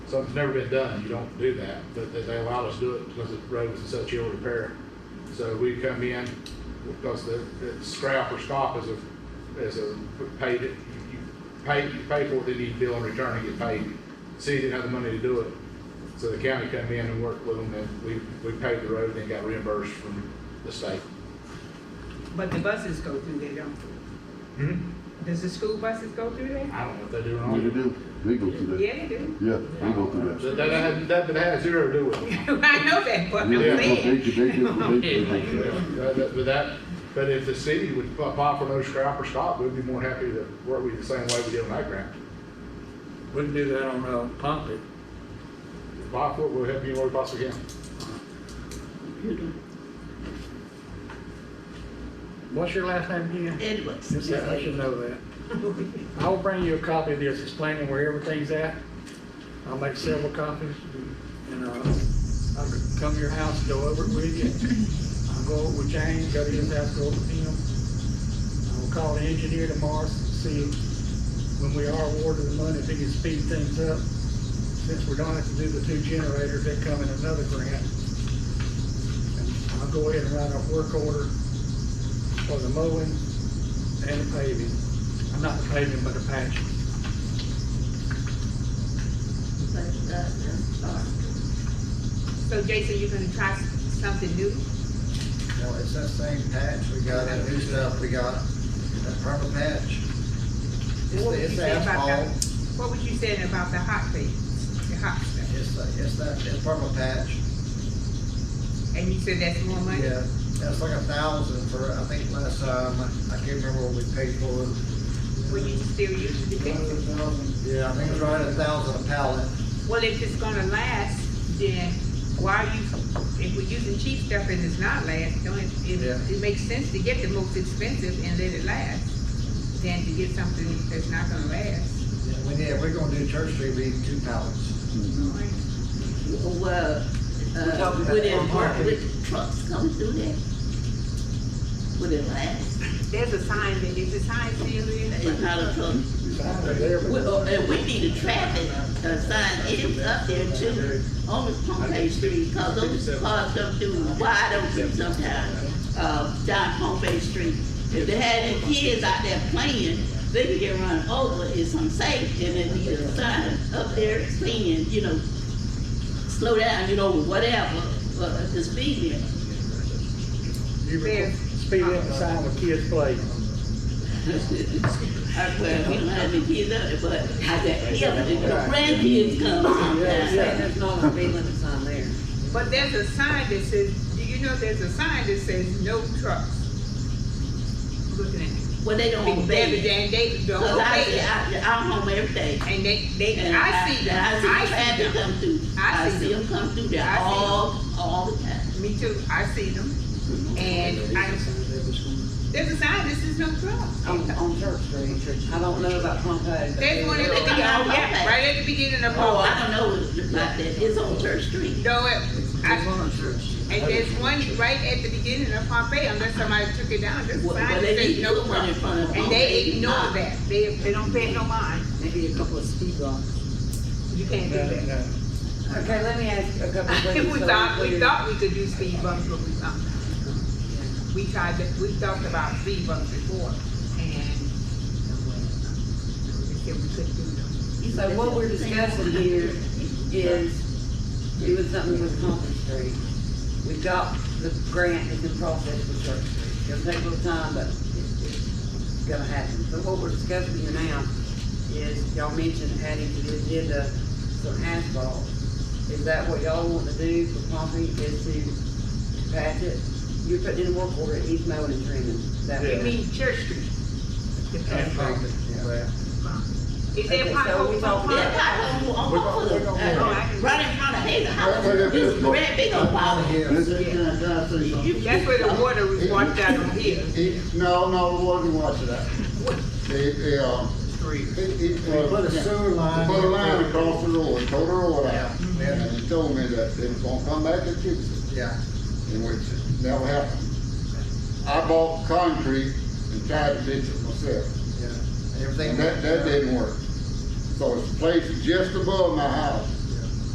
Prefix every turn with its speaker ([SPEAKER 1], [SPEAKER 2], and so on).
[SPEAKER 1] something's never been done, you don't do that, but they- they allowed us to do it because the road was in such ill repair. So we come in, because the, the scrap or stop is a, is a paid, you you pay, you pay for it, then you bill and return and get paid. City didn't have the money to do it, so the county come in and worked with them, and we, we paved the road and then got reimbursed from the state.
[SPEAKER 2] But the buses go through there, don't they? Does the school buses go through there?
[SPEAKER 1] I don't know if they do or
[SPEAKER 3] Yeah, they
[SPEAKER 1] not.
[SPEAKER 3] do. They go through that.
[SPEAKER 2] Yeah, they do.
[SPEAKER 3] Yeah, they go through that.
[SPEAKER 1] That, that, had- that, that had zero to do with it.
[SPEAKER 2] I know that, but I'm
[SPEAKER 3] Yeah, they, they,
[SPEAKER 2] saying,
[SPEAKER 3] they, they, they, they go through that.
[SPEAKER 1] That- that- But that, but if the city would apply for no scrap or stop, we'd be more than happy to work with you the same way we did on that grant.
[SPEAKER 4] We can do that on, uh, Pompey.
[SPEAKER 1] Apply for it, we'll help you where we possibly can.
[SPEAKER 4] What's your last name again?
[SPEAKER 5] Edwards.
[SPEAKER 4] Just that, I should know that. I will bring you a copy of this explaining where everything's at. I'll make several copies and, uh, I'll come to your house, go over it with you. I'll go over with James, go to his house, go over with him. I'll call the engineer tomorrow, see when we are awarded the money, if he can speed things up. Since we don't have to do the two generators, that come in another grant. And I'll go ahead and write a work order for the mowing and the paving. Uh, Not the paving, but the patch.
[SPEAKER 5] uh,
[SPEAKER 2] so Jason, you're gonna try s- something new?
[SPEAKER 6] No, it's that same patch, we got that new stuff, we got that purple patch.
[SPEAKER 2] What
[SPEAKER 6] It's the,
[SPEAKER 2] would you
[SPEAKER 6] it's
[SPEAKER 2] say about that?
[SPEAKER 6] asphalt,
[SPEAKER 2] What was you saying about the hot thing, the hot stuff?
[SPEAKER 6] it's the, it's that, it's purple patch,
[SPEAKER 2] And you said that's more money?
[SPEAKER 6] yeah, that's like a thousand for, I think last time, I can't remember what we paid for it.
[SPEAKER 2] Will you still use the fifty?
[SPEAKER 6] Yeah, I think it's right at a thousand a pallet,
[SPEAKER 2] Well, if it's gonna last, then why are you, if we're using cheap stuff and it's not last, don't it,
[SPEAKER 6] Yeah.
[SPEAKER 2] it, it makes sense to get the most expensive and let it last than to get something that's not gonna last.
[SPEAKER 6] Yeah, we need, if we're gonna do Church Street, we need two pallets.
[SPEAKER 5] Well, uh,
[SPEAKER 6] talking about
[SPEAKER 5] would it
[SPEAKER 6] front
[SPEAKER 5] work
[SPEAKER 6] parking.
[SPEAKER 5] with trucks coming through there? Would it last?
[SPEAKER 2] There's a sign, that is the sign still
[SPEAKER 5] It's
[SPEAKER 2] in?
[SPEAKER 5] not a truck. We- oh, And we need a traffic uh, sign, it's up there too, on the Pompey Street, cause those cars come through wide open sometimes, uh, down Pompey Street. If they had any kids out there playing, they could get run over, it's unsafe, and they need a sign up there saying, you know, slow down, you know, whatever, uh, the speed limit.
[SPEAKER 4] You
[SPEAKER 2] There.
[SPEAKER 4] record, speed up the sign with kids play.
[SPEAKER 5] I well, we don't have any kids out there, but I said, yeah, but the grandkids come sometimes.
[SPEAKER 7] There's no speed limits on there.
[SPEAKER 2] But there's a sign that says, do you know there's a sign that says no trucks? Looking at it.
[SPEAKER 5] Well, they don't
[SPEAKER 2] Big
[SPEAKER 5] obey
[SPEAKER 2] David
[SPEAKER 5] it.
[SPEAKER 2] Dan David, don't
[SPEAKER 5] Cause Oh, I,
[SPEAKER 2] obey
[SPEAKER 5] see-
[SPEAKER 2] it.
[SPEAKER 5] I, I'm home every day.
[SPEAKER 2] And they, they,
[SPEAKER 5] And
[SPEAKER 2] I see them,
[SPEAKER 5] and
[SPEAKER 2] I
[SPEAKER 5] I
[SPEAKER 2] see
[SPEAKER 5] see traffic
[SPEAKER 2] them.
[SPEAKER 5] come through.
[SPEAKER 2] I see
[SPEAKER 5] them come through
[SPEAKER 2] I
[SPEAKER 5] there
[SPEAKER 2] see
[SPEAKER 5] all, all the time.
[SPEAKER 2] Me too, I see them. And I, there's a sign that says no trucks.
[SPEAKER 7] On, on Church Street. I don't know about Pompey.
[SPEAKER 2] There's one at the
[SPEAKER 5] Oh,
[SPEAKER 2] beginning,
[SPEAKER 5] okay.
[SPEAKER 2] yeah, right at the beginning of
[SPEAKER 5] Oh, I
[SPEAKER 2] all.
[SPEAKER 5] don't know about that, it's on Church Street.
[SPEAKER 2] No, it, I, and there's one right at the beginning of Pompeii, unless somebody took it down, there's a
[SPEAKER 5] Well,
[SPEAKER 2] sign
[SPEAKER 5] well,
[SPEAKER 2] that
[SPEAKER 5] they need
[SPEAKER 2] says
[SPEAKER 5] to
[SPEAKER 2] no
[SPEAKER 5] put one in
[SPEAKER 2] trucks.
[SPEAKER 5] front of Pompey.
[SPEAKER 2] And they ignore that, they, they don't pay it no mind,
[SPEAKER 7] Maybe a couple of speed bumps.
[SPEAKER 2] you can't
[SPEAKER 4] No,
[SPEAKER 2] do that.
[SPEAKER 4] no.
[SPEAKER 7] Okay, let me ask a couple of things.
[SPEAKER 2] We
[SPEAKER 7] So
[SPEAKER 2] thought, we
[SPEAKER 7] we're-
[SPEAKER 2] thought we could do speed bumps, but we, um, we tried, to- we talked about speed bumps before, and we said we couldn't do them.
[SPEAKER 7] So what we're discussing here is doing something with Pompey Street. We got the grant that's in process with Church Street. It'll take a little time, but it's, it's gonna happen. So what we're discussing here now is, y'all mentioned adding to the agenda some asphalt. Is that what y'all want to do for Pompey, is to patch it? You're putting in a work order, he's mowing and trimming. Is that what-
[SPEAKER 2] I mean, Church Street.
[SPEAKER 4] And Pompey, yeah.
[SPEAKER 2] Is there
[SPEAKER 7] Okay, so we
[SPEAKER 2] potholes on
[SPEAKER 7] talking-
[SPEAKER 5] Yeah,
[SPEAKER 2] Pompeii?
[SPEAKER 5] pothole on Buckwood, uh, right in front of Hazel House,
[SPEAKER 3] Right, right,
[SPEAKER 5] It's
[SPEAKER 3] right.
[SPEAKER 5] red big old pothole.
[SPEAKER 3] This-
[SPEAKER 2] That's where the water was washed out on here.
[SPEAKER 3] it- No, no, it wasn't watching that. They, they, uh, it, it,
[SPEAKER 6] We put a
[SPEAKER 3] uh,
[SPEAKER 6] sewer line.
[SPEAKER 3] put a line across the road, tore the road out.
[SPEAKER 6] Yeah.
[SPEAKER 3] And they told me that they was gonna come back and fix it.
[SPEAKER 6] Yeah,
[SPEAKER 3] and which never happened. I bought concrete and tried to ditch it myself,
[SPEAKER 6] yeah, everything.
[SPEAKER 3] and that, that didn't work. So it's placed just above my house,